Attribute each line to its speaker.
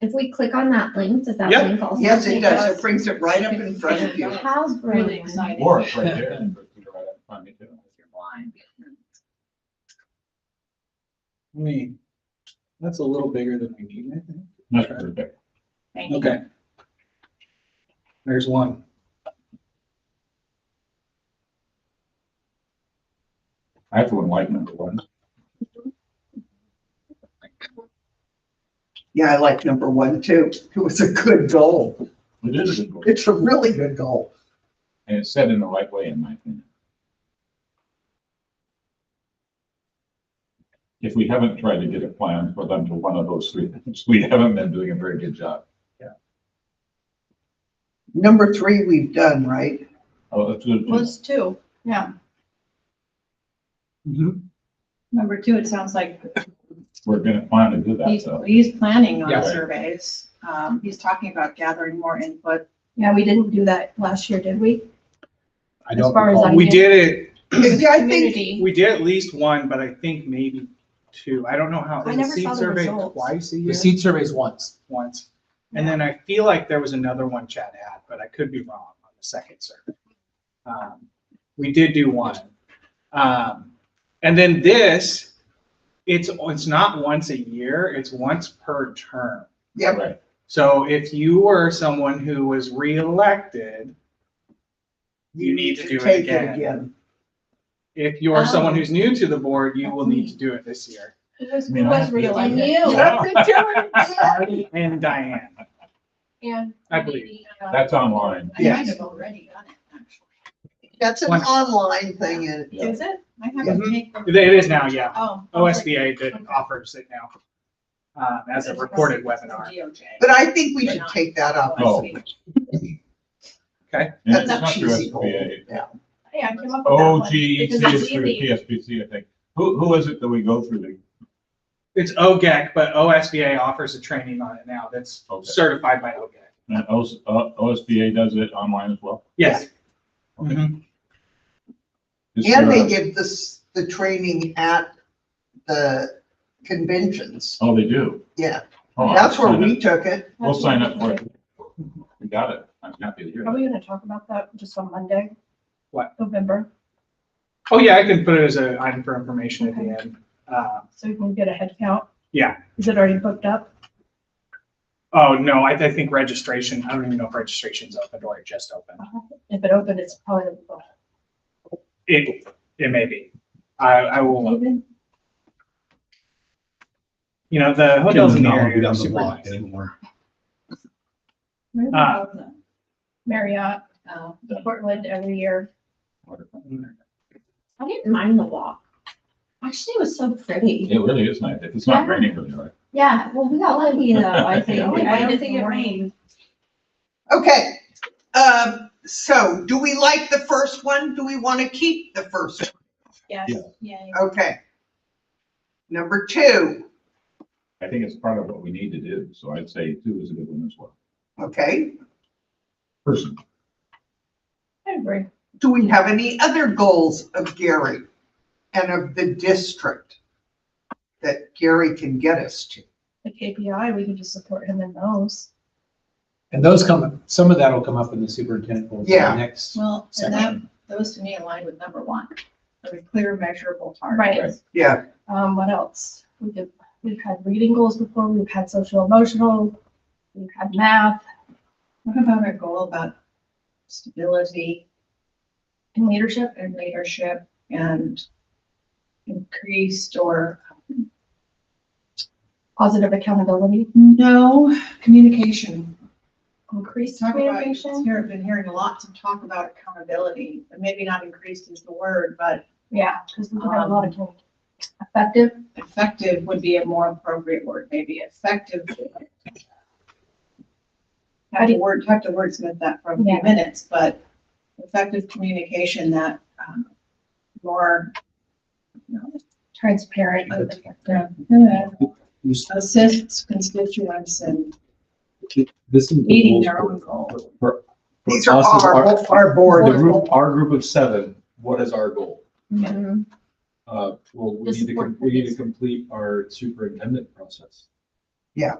Speaker 1: If we click on that link, does that
Speaker 2: Yep.
Speaker 1: link also?
Speaker 3: Yes, it
Speaker 1: take
Speaker 3: does.
Speaker 1: us
Speaker 3: It brings it right up in front of you.
Speaker 1: to How's
Speaker 4: Really
Speaker 1: Brandon?
Speaker 4: exciting.
Speaker 5: Or it's right there. You can put it right up in front of you, too.
Speaker 4: You're blind.
Speaker 6: We, that's a little bigger than we need, I think.
Speaker 5: That's very big.
Speaker 4: Thank you.
Speaker 6: Okay. There's one.
Speaker 5: I have to enlighten everyone.
Speaker 3: Yeah, I like number one too. It was a good goal.
Speaker 5: It is a good goal,
Speaker 3: It's a really good goal.
Speaker 5: and it's set in the right way, in my opinion. If we haven't tried to get a plan for them to one of those three things, we haven't been doing a very good job.
Speaker 3: Number three, we've done, right?
Speaker 5: Oh, that's good.
Speaker 4: Was two, yeah.
Speaker 6: Mm-hmm.
Speaker 4: Number two, it sounds like
Speaker 5: We're gonna plan to do that,
Speaker 4: he's,
Speaker 5: though.
Speaker 4: he's planning on
Speaker 5: Yeah.
Speaker 4: surveys. Um, he's talking about gathering more input. Yeah, we didn't do that last year, did we?
Speaker 6: I
Speaker 1: As
Speaker 6: don't
Speaker 1: far as
Speaker 6: recall.
Speaker 1: I
Speaker 6: We
Speaker 1: know.
Speaker 6: did it,
Speaker 3: Yeah, I think,
Speaker 4: Community.
Speaker 6: we did at least one, but I think maybe two. I don't know how.
Speaker 4: I
Speaker 6: is
Speaker 4: never
Speaker 6: seed
Speaker 4: saw the
Speaker 6: survey
Speaker 4: results.
Speaker 6: Twice a
Speaker 7: The
Speaker 6: year?
Speaker 7: seed surveys once.
Speaker 6: Once. And then I feel like there was another one Chad had, but I could be wrong on the second survey. Um, We did do one. Um, and then this, it's, it's not once a year, it's once per term.
Speaker 3: yep,
Speaker 5: Right,
Speaker 6: So if you were someone who was reelected,
Speaker 3: you need to
Speaker 6: do it
Speaker 3: take it
Speaker 6: again.
Speaker 3: again.
Speaker 6: if you're someone
Speaker 4: Oh.
Speaker 6: who's new to the board, you will
Speaker 4: That's
Speaker 6: need to do it this year.
Speaker 4: Who was,
Speaker 5: I mean,
Speaker 4: who
Speaker 5: I
Speaker 4: was
Speaker 5: have to-
Speaker 4: reelected?
Speaker 5: Yeah.
Speaker 6: And Diane,
Speaker 4: And.
Speaker 6: I believe.
Speaker 4: uh,
Speaker 5: that's online.
Speaker 4: I might
Speaker 3: Yes.
Speaker 4: have already done it, actually.
Speaker 3: That's an
Speaker 6: Once.
Speaker 3: online thing and
Speaker 5: Yeah. Mm-hmm.
Speaker 4: Is it? I haven't
Speaker 6: Mhm.
Speaker 4: taken.
Speaker 6: It is now, yeah.
Speaker 4: Oh.
Speaker 6: OSBA that offers it now um, as a recorded webinar.
Speaker 3: But I think we should take that up.
Speaker 5: Oh.
Speaker 6: Okay.
Speaker 5: And
Speaker 3: That's
Speaker 5: it's
Speaker 3: a
Speaker 5: not through
Speaker 3: cheesy goal.
Speaker 5: SBA,
Speaker 3: Yeah.
Speaker 4: Hey, I came up with that one.
Speaker 5: OGEC
Speaker 4: because that's
Speaker 5: E is through
Speaker 4: easy.
Speaker 5: PSPC, I think. Who, who is it that we go through? the-
Speaker 6: It's OGEC, but OSBA offers a training on it now that's
Speaker 5: Okay.
Speaker 6: certified by E OGEC.
Speaker 5: And OS uh, OSBA does it online as well?
Speaker 6: Yes.
Speaker 5: Okay.
Speaker 6: Mhm.
Speaker 5: Is
Speaker 3: And
Speaker 5: there-
Speaker 3: they give this, the training at the conventions.
Speaker 5: Oh, they do?
Speaker 3: Yeah.
Speaker 5: Oh, I'll
Speaker 3: That's where
Speaker 5: sign
Speaker 3: we
Speaker 5: up.
Speaker 3: took it.
Speaker 5: We'll sign up for it. We got it. I'm happy to hear
Speaker 1: Are
Speaker 5: that.
Speaker 1: we gonna talk about that just on Monday?
Speaker 6: What?
Speaker 1: November,
Speaker 6: Oh, yeah, I can put it as an item for information at the end. Uh,
Speaker 1: so we can get a head count?
Speaker 6: Yeah.
Speaker 1: Is it already booked up?
Speaker 6: Oh, no, I I think registration, I don't even know if registration's open or it just opened.
Speaker 1: If it opened, it's probably booked.
Speaker 6: It, it may be. I, I will,
Speaker 1: Even
Speaker 6: you know, the hotels in the
Speaker 7: Doesn't
Speaker 6: area are
Speaker 7: doesn't
Speaker 6: super
Speaker 7: block
Speaker 6: nice.
Speaker 7: anymore.
Speaker 6: Uh,
Speaker 1: Marriott, uh,
Speaker 4: Oh.
Speaker 1: Portland every year.
Speaker 5: Wonderful.
Speaker 1: I didn't mind the walk. Actually, it was so pretty.
Speaker 5: It really is nice. If it's not raining, really, right?
Speaker 1: Yeah, well, we got lucky though, I think.
Speaker 5: Yeah,
Speaker 1: We
Speaker 4: I don't
Speaker 1: waited
Speaker 4: think it
Speaker 1: for-
Speaker 4: rained.
Speaker 3: Okay, um, so do we like the first one? Do we want to keep the first? one?
Speaker 4: Yes,
Speaker 5: Yeah.
Speaker 4: yay.
Speaker 3: Okay. Number two,
Speaker 5: I think it's part of what we need to do. So I'd say two is a good one as well.
Speaker 3: okay,
Speaker 5: Person,
Speaker 1: I agree.
Speaker 3: do we have any other goals of Gary and of the district that Gary can get us to?
Speaker 1: The KPI, we can just support him in those.
Speaker 7: And those come, some of that will come up in the superintendent. goals in the
Speaker 3: Yeah.
Speaker 7: Next
Speaker 4: Well, and that,
Speaker 7: section.
Speaker 4: those to me align with number one, a clear measurable target.
Speaker 1: Right.
Speaker 3: Yeah,
Speaker 1: Um, what else? We did, we've had reading goals before, we've had social emotional, we've had math
Speaker 4: What about our goal about stability
Speaker 1: and leadership.
Speaker 4: and leadership and increased or
Speaker 1: positive accountability,
Speaker 4: no communication?
Speaker 1: increased
Speaker 4: Talk about,
Speaker 1: communication.
Speaker 4: here, I've been hearing lots of talk about accountability, and maybe not increased is the word, but
Speaker 1: Yeah, because we've had a lot of communication. effective.
Speaker 4: effective would be a more appropriate word, maybe effective. Have to word, have to wordsmith that for a few
Speaker 1: Yeah.
Speaker 4: minutes, but effective communication that, um, more, you know,
Speaker 1: Transparent. Mm-hmm.
Speaker 4: Yeah. Assists constituents in
Speaker 7: This is. the
Speaker 4: meeting
Speaker 7: goals
Speaker 4: their
Speaker 7: for-
Speaker 4: own goals.
Speaker 7: for- for
Speaker 3: these are
Speaker 7: us as
Speaker 3: our, our
Speaker 7: The
Speaker 3: board.
Speaker 7: group, our group of seven, what is our goal?
Speaker 1: Mhm.
Speaker 7: Uh, well, we
Speaker 1: The
Speaker 7: need to, com-
Speaker 1: support
Speaker 7: we need to
Speaker 1: purpose.
Speaker 7: complete our superintendent process.
Speaker 3: Yeah.